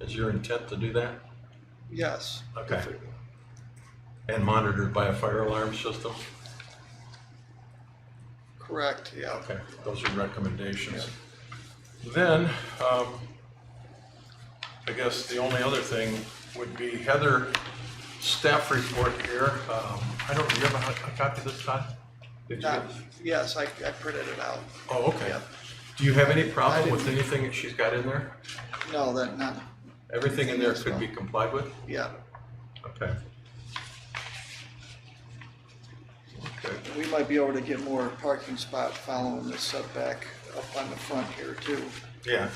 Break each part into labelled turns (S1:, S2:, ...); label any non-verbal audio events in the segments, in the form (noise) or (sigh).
S1: Is your intent to do that?
S2: Yes.
S1: Okay. And monitored by a fire alarm system?
S2: Correct, yeah.
S1: Okay, those are recommendations. Then, um, I guess the only other thing would be Heather, staff report here. Um, I don't, do you have a a copy of this, Todd? Did you-
S2: Not, yes, I, I printed it out.
S1: Oh, okay. Do you have any problem with anything that she's got in there?
S2: No, that, not,
S1: Everything in there could be complied with?
S2: yeah.
S1: Okay. Okay.
S2: We might be able to get more parking spot following the setback up on the front here too.
S1: Yeah.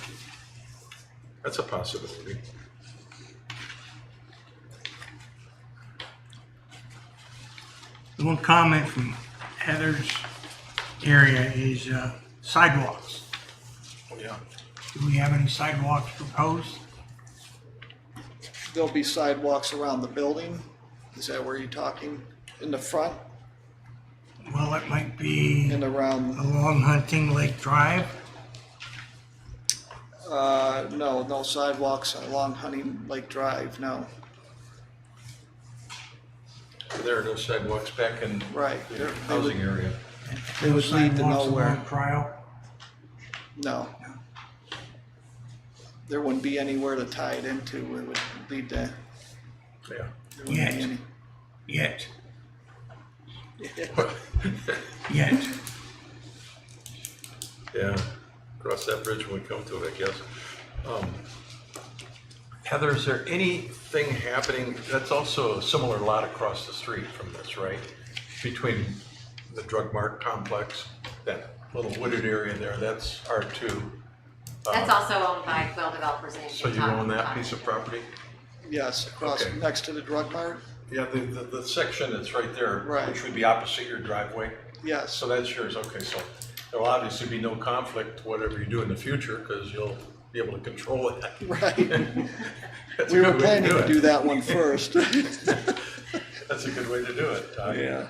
S1: That's a possibility.
S3: One comment from Heather's area is uh, sidewalks.
S1: Yeah.
S3: Do we have any sidewalks proposed?
S2: There'll be sidewalks around the building. Is that where you're talking? In the front
S3: Well, it might be
S2: and around,
S3: along Hunting Lake Drive.
S2: uh, no, no sidewalks along Hunting Lake Drive, no.
S1: There are no sidewalks back in
S2: Right.
S1: the
S2: There- they would-
S1: housing area.
S2: It would lead to
S3: Sidewalks
S2: nowhere.
S3: along Trial.
S2: No. There wouldn't be anywhere to tie it into. It would lead to,
S1: Yeah.
S2: there wouldn't be
S3: Yes.
S2: any.
S3: Yet,
S1: Yeah,
S3: yet.
S1: cross that bridge when we come to it, I guess. Um, Heather, is there anything happening, that's also a similar lot across the street from this, right? Between the drug mart complex, that little wooded area there, that's R2.
S4: That's also owned by Quail Developers Inc.
S1: So you own that piece of property?
S2: Yes, across,
S1: Okay.
S2: next to the drug mart,
S1: Yeah, the, the, the section that's right there.
S2: Right.
S1: Which would be opposite your driveway.
S2: yes,
S1: So that's yours, okay, so there'll obviously be no conflict, whatever you do in the future, because you'll be able to control it.
S2: (laughs) right.
S1: (laughs) That's a
S2: We were
S1: good way
S2: planning to
S1: it.
S2: do that
S1: (laughs)
S2: one first.
S1: That's a good way to do it. Todd.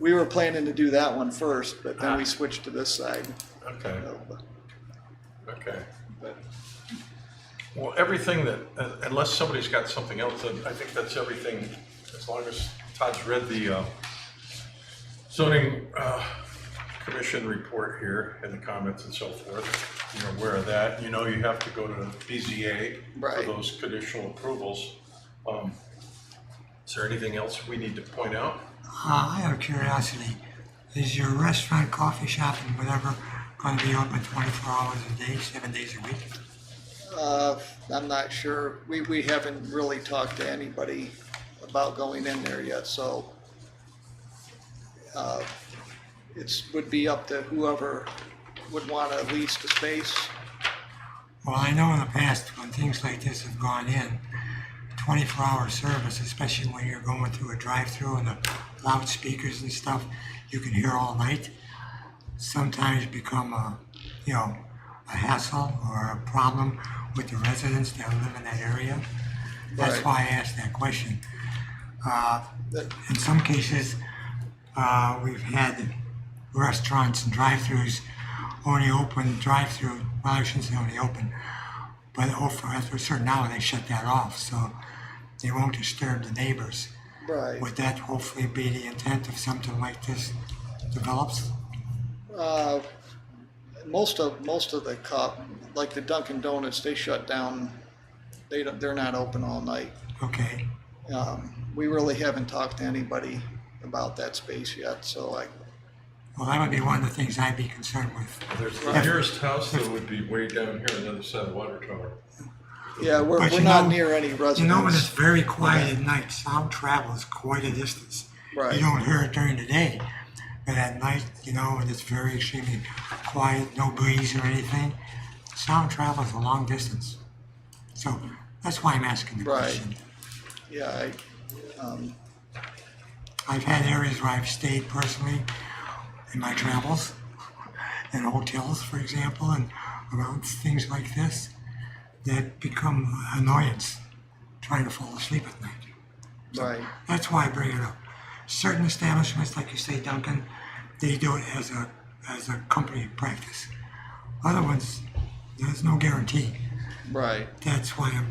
S2: We were planning to do that one first, but then
S1: Ah.
S2: we switched to this side.
S1: Okay, okay.
S2: But
S1: Well, everything that, un- unless somebody's got something else, then I think that's everything, as long as Todd's read the uh, zoning uh, commission report here and the comments and so forth. You're aware of that. You know you have to go to BZA for
S2: Right.
S1: those conditional approvals. Um, Is there anything else we need to point out?
S3: Uh, Out of curiosity, is your restaurant, coffee shop, and whatever going to be open 24 hours a day, seven days a week?
S2: Uh, I'm not sure. We, we haven't really talked to anybody about going in there yet, so. uh, It's, would be up to whoever would want to lease the space.
S3: Well, I know in the past when things like this have gone in, 24 hour service, especially when you're going through a drive through and the loudspeakers and stuff you can hear all night, sometimes become a, you know, a hassle or a problem with the residents that live in that area. That's
S2: Right.
S3: why I asked that question. Uh,
S2: That-
S3: in some cases, uh, we've had restaurants and drive-throughs only open drive-through. Well, I shouldn't say only open, but over after a certain hour they shut that off, so they won't disturb the neighbors.
S2: Right.
S3: Would that hopefully be the intent if something like this develops?
S2: Uh, most of, most of the cop, like the Dunkin' Donuts, they shut down. They don't, they're not open all night.
S3: Okay,
S2: Um, we really haven't talked to anybody about that space yet, so I,
S3: well that would be one of the things I'd be concerned with.
S1: There's the
S3: Right.
S1: nearest house that would be way down here on the other side of Water Tower.
S2: yeah, we're,
S3: But
S2: we're
S3: you
S2: not
S3: know-
S2: near any residents.
S3: You know, when it's very quiet at night, sound travels quite a distance.
S2: Right.
S3: You don't hear it during the day, but at night, you know, when it's very extremely quiet, no breeze or anything, sound travels a long distance. So that's why I'm asking the
S2: Right.
S3: question.
S2: Yeah, I, um,
S3: I've had areas where I've stayed personally in my travels, in hotels, for example, and around things like this that become annoyance trying to fall asleep at night.
S2: right,
S3: That's why I bring it up. Certain establishments, like you say, Duncan, they do it as a as a company practice. Other ones, there's no guarantee.
S2: right.
S3: That's why I'm